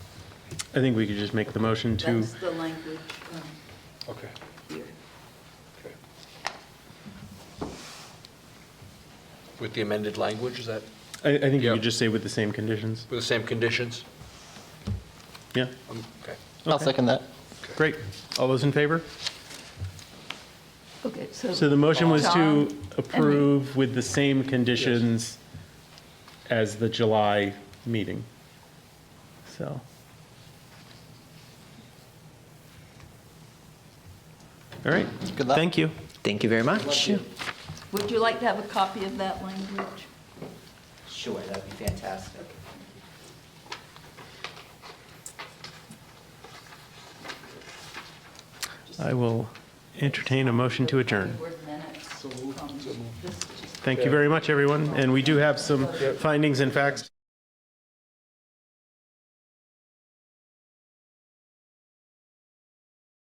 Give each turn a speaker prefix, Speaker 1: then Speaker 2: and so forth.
Speaker 1: I think we could just make the motion to,
Speaker 2: That's the language um,
Speaker 3: Okay.
Speaker 2: here.
Speaker 3: okay. With the amended language, is that
Speaker 1: I, I think you
Speaker 3: Yeah.
Speaker 1: could just say with the same conditions.
Speaker 3: with the same conditions?
Speaker 1: Yeah,
Speaker 3: Um, Okay.
Speaker 4: I'll second that.
Speaker 1: great. All those in favor?
Speaker 5: Okay,
Speaker 1: So
Speaker 5: so,
Speaker 1: the motion was to
Speaker 5: Tom,
Speaker 1: approve with the same conditions as the July meeting. So, all right.
Speaker 4: Good luck.
Speaker 1: Thank you.
Speaker 6: Thank you very much.
Speaker 2: Would you like to have a copy of that language?
Speaker 6: Sure, that'd be fantastic.
Speaker 1: I will entertain a motion to adjourn.
Speaker 2: Word minutes from this-
Speaker 1: Thank you very much, everyone. And we do have some findings and facts.